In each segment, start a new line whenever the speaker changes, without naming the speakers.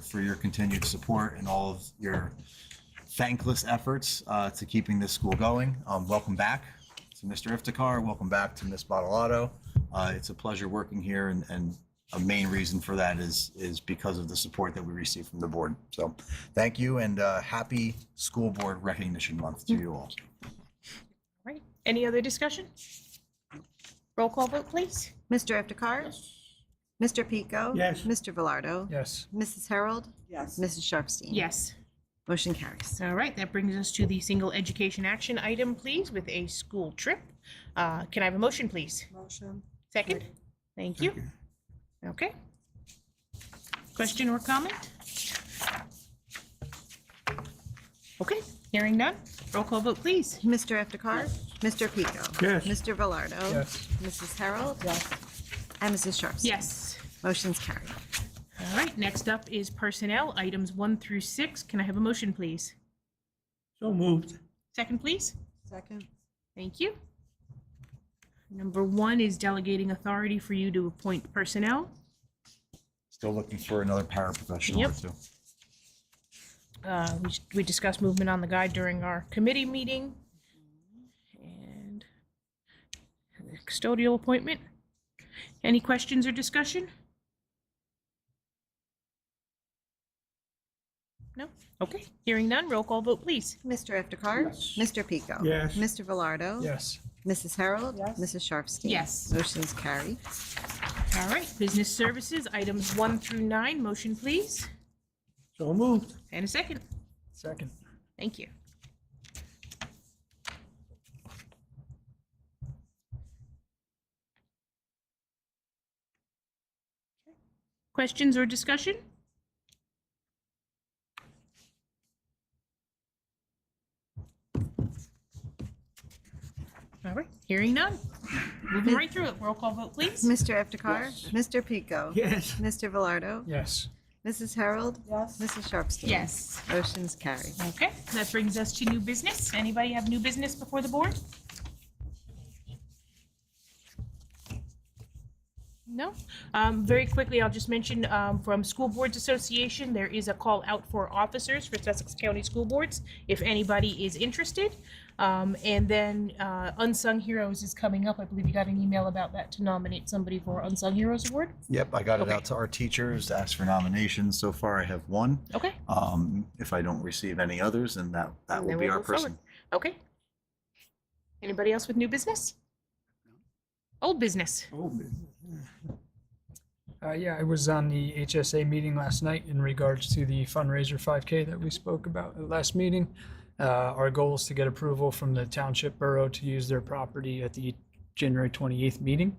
for your continued support and all of your thankless efforts uh, to keeping this school going. Um, Welcome back to Mr. Iftikhar. Welcome back to Ms. Bottalato. Uh, It's a pleasure working here and, and a main reason for that is, is because of the support that we receive from the board. So thank you and uh, happy School Board Recognition Month to you all.
Right. Any other discussion? Roll call vote, please.
Mr. Iftikhar? Mr. Pico?
Yes.
Mr. Velardo?
Yes.
Mrs. Harold?
Yes.
Mrs. Sharpstein?
Yes.
Motion carries.
All right, that brings us to the single education action item, please, with a school trip. Uh, Can I have a motion, please?
Motion.
Second? Thank you. Okay. Question or comment? Okay, hearing none. Roll call vote, please.
Mr. Iftikhar? Mr. Pico?
Yes.
Mr. Velardo?
Yes.
Mrs. Harold? Yes. And Mrs. Sharpstein?
Yes.
Motion's carried.
All right, next up is personnel, items one through six. Can I have a motion, please?
So moved.
Second, please.
Second.
Thank you. Number one is delegating authority for you to appoint personnel.
Still looking for another paraprofessional or
Yep.
two.
Uh, We we discussed movement on the guide during our committee meeting. And the custodial appointment. Any questions or discussion? No? Okay, hearing none, roll call vote, please.
Mr. Iftikhar? Mr. Pico?
Yes.
Mr. Velardo?
Yes.
Mrs. Harold?
Yes.
Mrs. Sharpstein?
Yes.
Motion's carried.
All right, business services, items one through nine, motion please,
So moved.
and a second.
Second.
Thank you. Questions or discussion? All right, hearing none. Moving right through it. Roll call vote, please.
Mr. Iftikhar? Mr. Pico?
Yes.
Mr. Velardo?
Yes.
Mrs. Harold?
Yes.
Mrs. Sharpstein?
Yes.
Motion's carried.
Okay, that brings us to new business. Anybody have new business before the board? No? Um, Very quickly, I'll just mention um, from School Boards Association, there is a call out for officers for Sussex County School Boards, if anybody is interested. Um, And then uh, Unsung Heroes is coming up. I believe you got an email about that to nominate somebody for Unsung Heroes Award.
Yep, I got it
Okay.
out to our teachers, asked for nominations. So far, I have one.
Okay,
Um, If I don't receive any others, then that, that will
Then
be
we'll
our
move forward.
person.
okay. Anybody else with new business? Old business?
Oh,
Uh, yeah, I was on the HSA meeting last night in regards to the fundraiser 5K that we spoke about at last meeting. Uh, our goal is to get approval from the township borough to use their property at the January 28th meeting.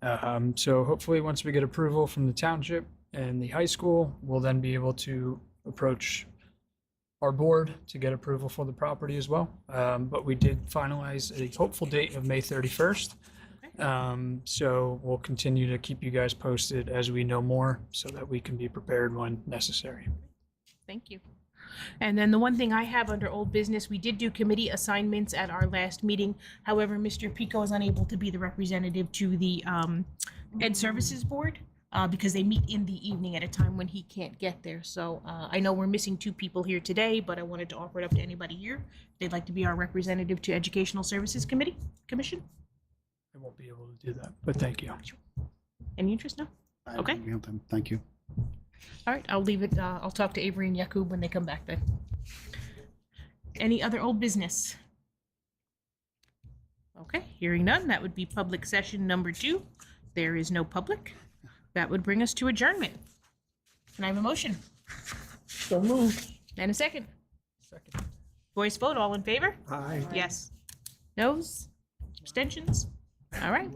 Um, so hopefully, once we get approval from the township and the high school, we'll then be able to approach our board to get approval for the property as well. Um, but we did finalize a hopeful date of May 31st. Um, so we'll continue to keep you guys posted as we know more so that we can be prepared when necessary.
Thank you. And then the one thing I have under old business, we did do committee assignments at our last meeting. However, Mr. Pico is unable to be the representative to the um, Ed Services Board uh, because they meet in the evening at a time when he can't get there. So uh, I know we're missing two people here today, but I wanted to offer it up to anybody here. They'd like to be our representative to Educational Services Committee, Commission?
I won't be able to do that, but thank you.
Any interest? No?
I
Okay.
agree with them. Thank you.
All right, I'll leave it, uh, I'll talk to Avery and Yakub when they come back then. Any other old business? Okay, hearing none, that would be public session number two. There is no public. That would bring us to adjournment. Can I have a motion?
So moved.
And a second?
Second.
Voice vote, all in favor?
Aye.
Yes. Noes? Abstentions? All right.